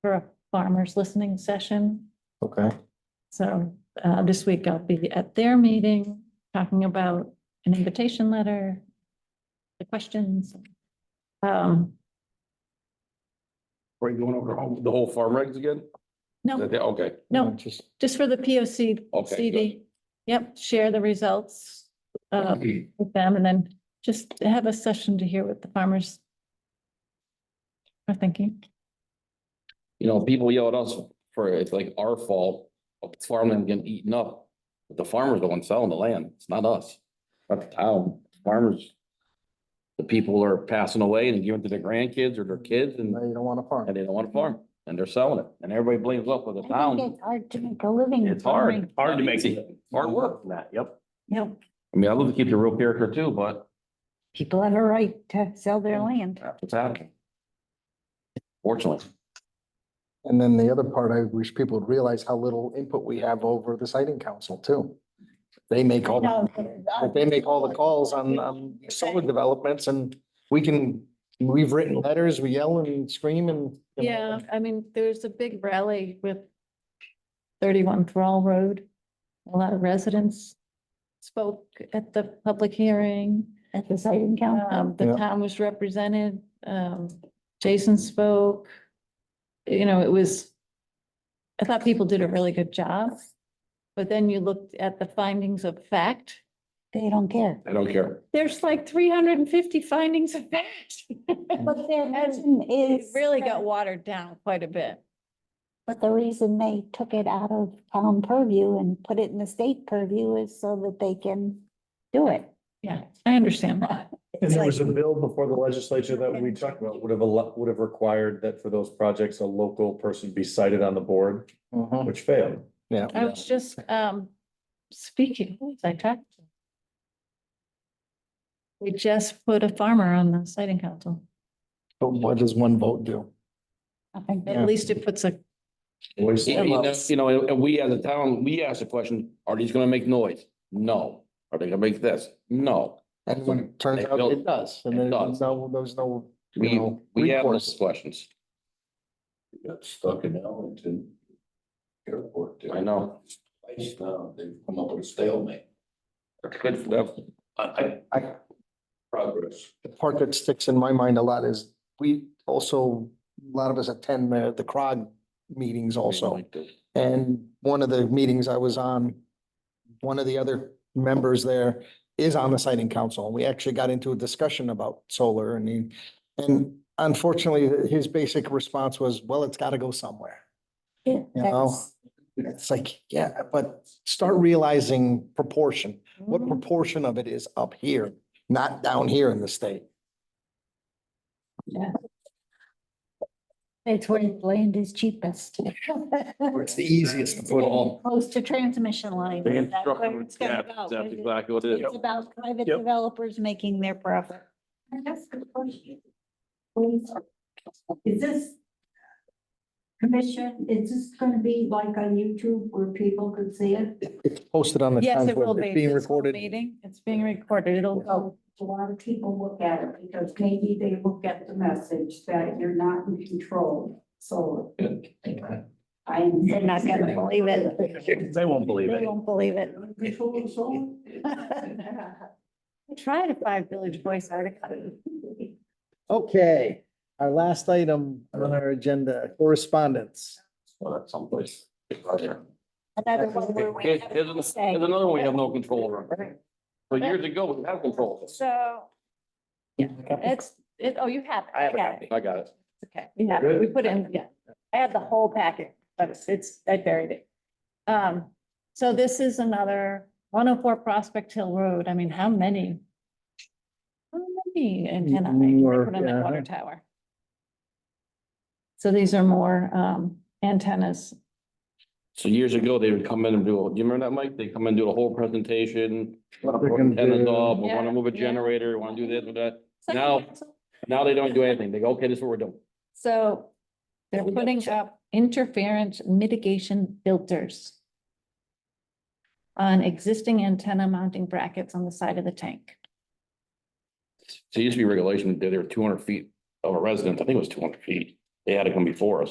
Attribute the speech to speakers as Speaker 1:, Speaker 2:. Speaker 1: for a farmer's listening session.
Speaker 2: Okay,
Speaker 1: So uh, this week I'll be at their meeting, talking about an invitation letter, the questions. Um,
Speaker 3: Are you going over the whole- the whole farm regs again? Is
Speaker 1: No,
Speaker 3: that it? Okay,
Speaker 1: no,
Speaker 2: Just,
Speaker 1: just for the P O C
Speaker 3: Okay,
Speaker 1: CD. Yep, share the results uh, with them and then just have a session to hear what the farmers are thinking.
Speaker 3: you know, people yell at us for, it's like our fault, of farmland getting eaten up. But the farmers the one selling the land, it's not us, not the town, farmers. The people are passing away and giving to their grandkids or their kids and,
Speaker 2: no, you don't want to farm.
Speaker 3: and they don't want to farm, and they're selling it, and everybody blames us for the
Speaker 4: I think
Speaker 3: town.
Speaker 4: It's hard to make a living.
Speaker 3: It's hard,
Speaker 4: farming.
Speaker 3: hard to make it, hard work, Matt, yep.
Speaker 1: Yep.
Speaker 3: I mean, I love to keep the real character too, but
Speaker 4: People have a right to sell their land.
Speaker 3: that's what's happening. Fortunately.
Speaker 2: And then the other part, I wish people would realize how little input we have over the siting council too. They make all,
Speaker 4: No,
Speaker 2: like, they make all the calls on, um, on solar developments and we can, we've written letters, we yell and scream and.
Speaker 1: Yeah, I mean, there's a big rally with thirty-one Thrall Road. A lot of residents spoke at the public hearing.
Speaker 4: At the siting council.
Speaker 1: Um, the
Speaker 2: Yeah.
Speaker 1: town was represented, um, Jason spoke. You know, it was, I thought people did a really good job. But then you looked at the findings of fact.
Speaker 4: They don't care.
Speaker 3: I don't care.
Speaker 1: There's like three hundred and fifty findings of fact.
Speaker 4: But their
Speaker 1: And
Speaker 4: reason
Speaker 1: It
Speaker 4: is.
Speaker 1: really got watered down quite a bit.
Speaker 4: But the reason they took it out of town purview and put it in the state purview is so that they can do it.
Speaker 1: Yeah, I understand that.
Speaker 5: And
Speaker 4: It's
Speaker 5: there
Speaker 4: like-
Speaker 5: was a bill before the legislature that we talked about would have, al- would have required that for those projects, a local person be cited on the board,
Speaker 2: Mhm,
Speaker 5: which failed.
Speaker 2: Yeah.
Speaker 1: I
Speaker 3: Oh.
Speaker 1: was just, um, speaking, who was I talked to. We just put a farmer on the siting council.
Speaker 2: But what does one vote do?
Speaker 4: I think
Speaker 2: Yeah.
Speaker 1: At least it puts a,
Speaker 5: Voice-
Speaker 3: You know, you know, and we as a town, we ask the question, are these gonna make noise? No. Are they gonna make this? No.
Speaker 2: And when it turns
Speaker 3: They
Speaker 2: out
Speaker 3: built-
Speaker 2: it does, and
Speaker 3: it
Speaker 2: then
Speaker 3: does.
Speaker 2: there's no, there's no, you
Speaker 3: We,
Speaker 2: know,
Speaker 3: we have those
Speaker 2: recourse.
Speaker 3: questions.
Speaker 6: got stuck in Ellington Airport. there.
Speaker 3: I know.
Speaker 6: Twice now, they've come up with a stalemate.
Speaker 3: That's good for them.
Speaker 6: I, I,
Speaker 2: I-
Speaker 6: progress.
Speaker 2: the part that sticks in my mind a lot is we also, a lot of us attend the, the CROG meetings also. And one of the meetings I was on, one of the other members there is on the siting council. and We actually got into a discussion about solar and he, and unfortunately, his basic response was, well, it's gotta go somewhere.
Speaker 4: it-
Speaker 2: know,
Speaker 4: that's-
Speaker 2: It's like, yeah, but start realizing proportion. What
Speaker 4: Mm-hmm.
Speaker 2: proportion of it is up here, not down here in the state?
Speaker 4: It's where land is cheapest.
Speaker 2: Where it's the easiest to put on.
Speaker 4: Close to transmission line.
Speaker 3: They
Speaker 4: That's
Speaker 3: instruct
Speaker 4: where
Speaker 3: them,
Speaker 4: it's
Speaker 3: yeah,
Speaker 4: gonna go.
Speaker 3: That's exactly what it is.
Speaker 4: It's about private
Speaker 5: Yep.
Speaker 4: developers making their profit.
Speaker 7: Is this commission, is this gonna be like on YouTube where people could see it?
Speaker 2: It's posted on the.
Speaker 1: yes,
Speaker 2: town's
Speaker 1: it will
Speaker 2: website,
Speaker 1: be.
Speaker 2: Being
Speaker 1: This whole
Speaker 2: recorded.
Speaker 1: Meeting, it's being recorded. It'll go.
Speaker 4: Oh.
Speaker 7: So a lot of people look at it because maybe they will get the message that you're not in control, so. I.
Speaker 4: They're not gonna believe it.
Speaker 5: They won't believe
Speaker 4: They won't believe it.
Speaker 7: Control of soul?
Speaker 1: Try to find Village Voice article.
Speaker 2: Okay, our last item on our agenda, correspondence.
Speaker 3: Well, that's someplace.
Speaker 4: Another one where we
Speaker 3: Here's,
Speaker 4: have
Speaker 3: here's an-
Speaker 4: to
Speaker 3: here's
Speaker 4: say.
Speaker 3: another one we have no control over. So years ago, we had control.
Speaker 1: So, yeah, it's, it, oh, you have. it. I got it.
Speaker 3: I got it.
Speaker 1: Okay, we have, it. we put it in, yeah. I had the whole packet, but it's- it's, I buried it. Um, so this is another one oh four Prospect Hill Road. I mean, how many? How many antenna I can
Speaker 2: More,
Speaker 1: put on that
Speaker 2: yeah.
Speaker 1: water tower? So these are more, um, antennas.
Speaker 3: So years ago, they would come in and do, do you remember that, Mike? They come in, do the whole presentation.
Speaker 2: What they're gonna
Speaker 3: Antennas
Speaker 2: do.
Speaker 3: up, we
Speaker 1: Yeah,
Speaker 3: wanna move a
Speaker 1: yeah.
Speaker 3: generator, wanna do this, or that. Now- Now they don't do anything. They go, okay, this is what we're doing.
Speaker 1: So they're putting up interference mitigation filters on existing antenna mounting brackets on the side of the tank.
Speaker 3: So it used to be regulation, that they were two hundred feet of a residence, I think it was two hundred feet, they had to come before us.